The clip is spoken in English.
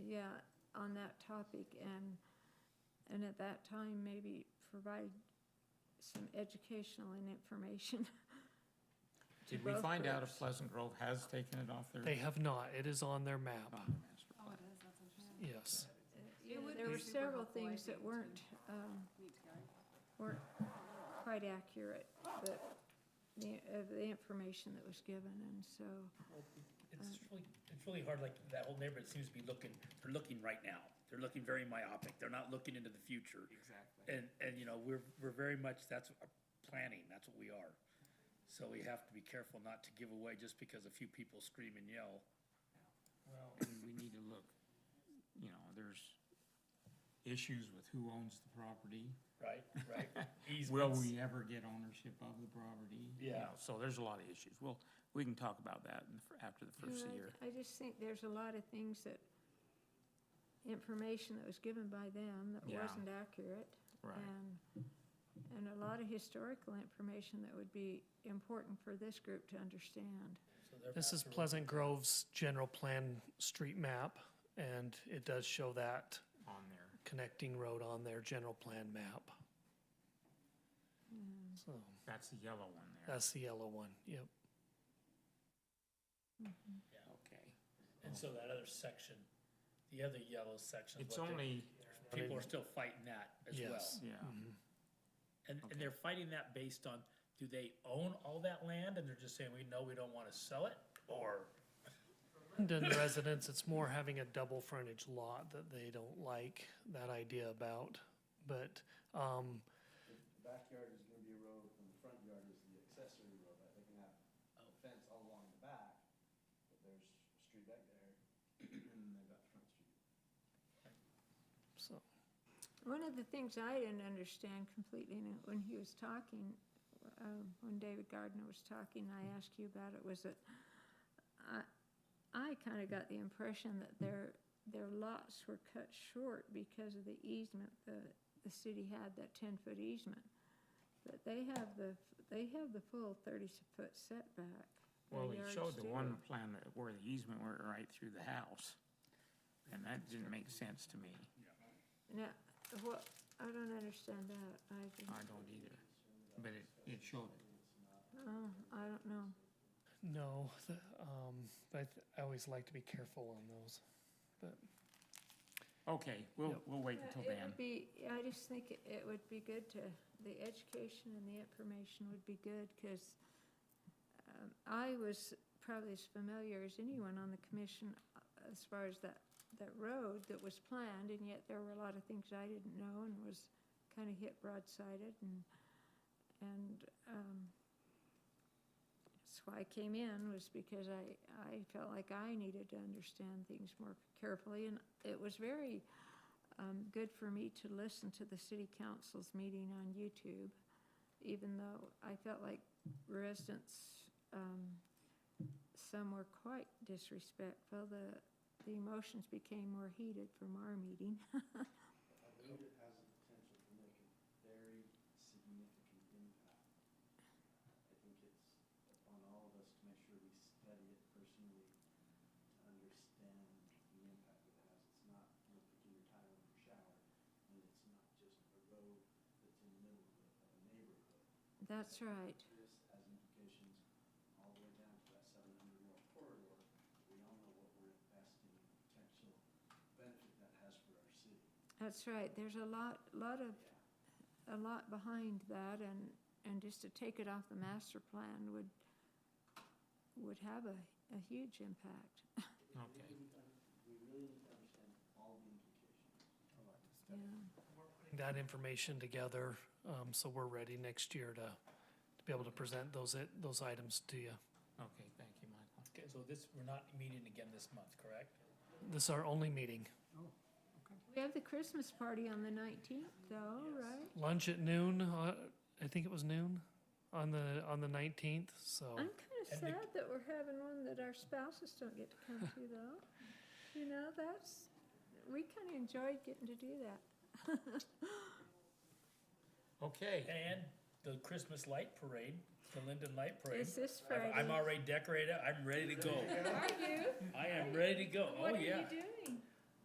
yeah, on that topic and, and at that time, maybe provide some educational and information. to Did we both find out groups. if Pleasant Grove has taken it off their? They have not. It is on their map. on the master Oh, plan? Yes. Yeah, There were several things that weren't, um, weren't quite accurate, but the, of the information that was given, and so, Well, it- It's really, it's really hard, like, that whole neighborhood seems to be looking, they're looking right now. They're looking very myopic, they're not looking into the future. Exactly. And, and, you know, we're, we're very much, that's our planning, that's what we are. So we have to be careful not to give away just because a few people scream and yell. Well, and we need to look, you know, there's issues with who owns the property. Right, right. Will Easements. we ever get ownership of the property? You Yeah. know, So there's a lot of issues. Well, we can talk about that in the fir- after the first you know, I- year. I just think there's a lot of things that, information that was given by them that Yeah. wasn't accurate. Right. And, Um, and a lot of historical information that would be important for this group to understand. So they're This is back to- Pleasant Grove's general plan street map, and it does show that On there. connecting road on their general plan map. So That's the yellow one there. that's the yellow one. Yep. Okay. And so that other section, the other yellow section. is It's what they- only, People are still fighting that as well. Yes. yeah, And, and they're fighting that based on, do they own all that land and they're just saying, we know we don't wanna sell it? Or, And in residents, it's more having a double frontage lot that they don't like that idea about. But um, The backyard is gonna be a road, and the front yard is the accessory road, but they can have a fence all along the back, but there's a street back there, and they've got the front street. so One of the things I didn't understand completely and when he was talking, um, when David Gardner was talking, I asked you about it, was that I, I kind of got the impression that their, their lots were cut short because of the easement, the, the city had that ten-foot easement. But they have the, they have the full thirty-foot setback. Their well, we yards showed the do. one plan that where the easement went right through the house. And that didn't make sense to me. Now, what, I don't understand that, I I didn't, don't either. But it, it showed it. oh, I don't know. no, the, um, but I always like to be careful on those. But Okay, we'll, we'll wait Yeah, until Uh, It then. would be, I just think it- it would be good to, the education and the information would be good, because I was probably as familiar as anyone on the commission uh, as far as that, that road that was planned, and yet there were a lot of things I didn't know and was kind of hit broadsided, and, and um, that's why I came in, was because I, I felt like I needed to understand things more carefully, and it was very um, good for me to listen to the city council's meeting on YouTube, even though I felt like residents, um, some were quite disrespectful. The, the emotions became more heated from our meeting. I believe it has the potential to make a very significant impact. I think it's upon all of us to make sure we study it personally, to understand the impact it has. It's not, you know, picking your tile in your shower, and it's not just a road that's in the middle of a- of a neighborhood. That's right. This has implications all the way down to that seven hundred mile corridor. We all know what we're investing in, the potential benefit that has for our city. That's right. There's a lot, lot of, a lot behind that and, and just to take it off the master plan would, would have a, a huge impact. Okay. We really need to understand all the implications. I like this. Yeah. putting that information together, um, so we're ready next year to, to be able to present those, i- those items to you. Okay, thank you, Michael. okay, so this, we're not meeting again this month, correct? This is our only meeting. We have the Christmas party on the nineteenth though, right? Lunch at noon, uh, I think it was noon, on the, on the nineteenth, so. I'm kind of Oh, And the- sad that we're having one that our spouses don't get to come to, though. You know, that's, we kind of enjoyed getting to do that. Okay. And the Christmas light parade, the Linden Light Parade. It's this I'm- Friday. I'm already decorated, I'm ready to go. Are you? I am ready to go, oh What are yeah. you doing?